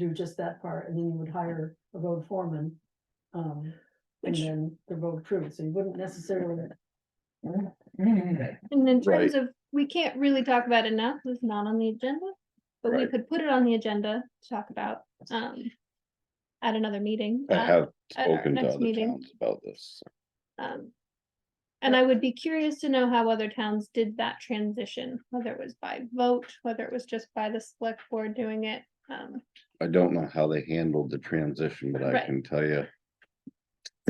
do just that part, and then you would hire a road foreman. Um, and Which- then the road crew, so you wouldn't necessarily, And in Right. terms of, we can't really talk about it now, 'cause it's not on the agenda, but we Right. could put it on the agenda to talk about, um. At another meeting. I uh, have at our spoken to next other meeting. towns about this. um, And I would be curious to know how other towns did that transition, whether it was by vote, whether it was just by the select board doing it. Um, I don't know how they handled the transition, but I Right. can tell you,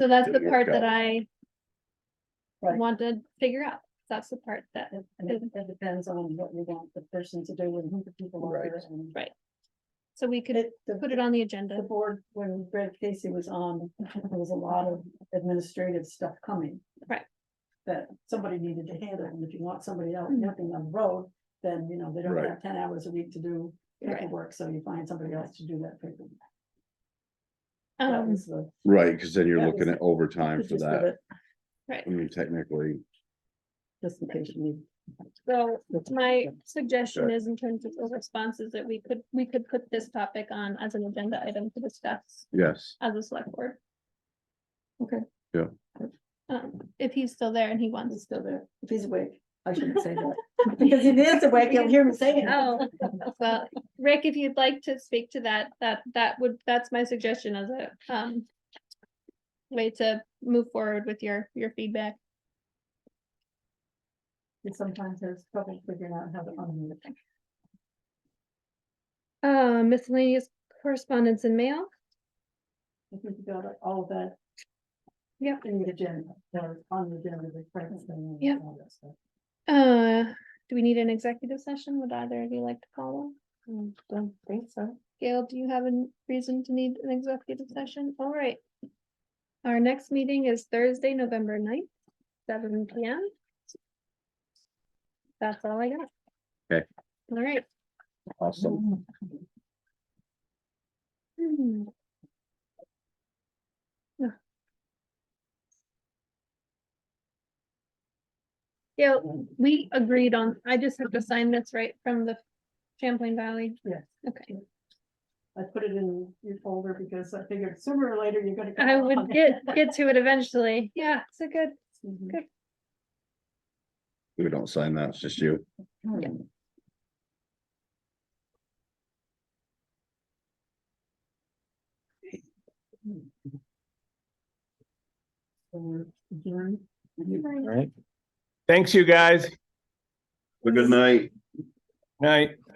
so that's the Didn't work part that out. I. Right. Want to figure out, that's the part that, It- And it it depends on what we want the person to do and who the people are. Right. and- Right. so we could It, the, put it on the the agenda, board, when Greg Casey was on, there was a lot of administrative stuff coming. Right. That somebody needed to handle, and if you want somebody out helping on the road, then, you know, they don't Right. have ten hours a week to do Right. paperwork, so you find somebody else to do that paperwork. That um, was the right, because then you're That looking was- at overtime for gist of that. it, right, I mean, technically, Just in case you need. so. My suggestion Sure. is in terms of the responses that we could, we could put this topic on as an agenda item to discuss yes, as a select board. Okay. Yeah. Um, if he's still there and he He's wants. still there, if he's awake, I shouldn't say that, because if he is awake, you'll hear him saying. Oh, well, Rick, if you'd like to speak to that, that, that would, that's my suggestion as a, um. Way to move forward with your, your feedback. And sometimes there's trouble figuring out how to unmute. Uh, miscellaneous correspondence and mail, If we could go to all of that. Yep. In the agenda, or on the agenda, the preference thing. and Yep. all that stuff. uh, do we need an executive session? Would either of you like to call one? Mm, Don't think so. Gail, do you have a reason to need an executive session? All right. Our next meeting is Thursday, November 9th, seven P M. That's all I got. Okay. All right. Mhm. awesome. Hmm. Yeah. Gail, we agreed on, I just have to sign this right from the Champlain Valley. Yes. Okay, I put it in your folder because I figured sooner or later you're gonna. go I on would it. get, get to it eventually. Yeah, it's a good. Mhm. We don't sign that, it's just you. Hmm. So we're adjourned. Right. Thanks, you guys. Good night. Night.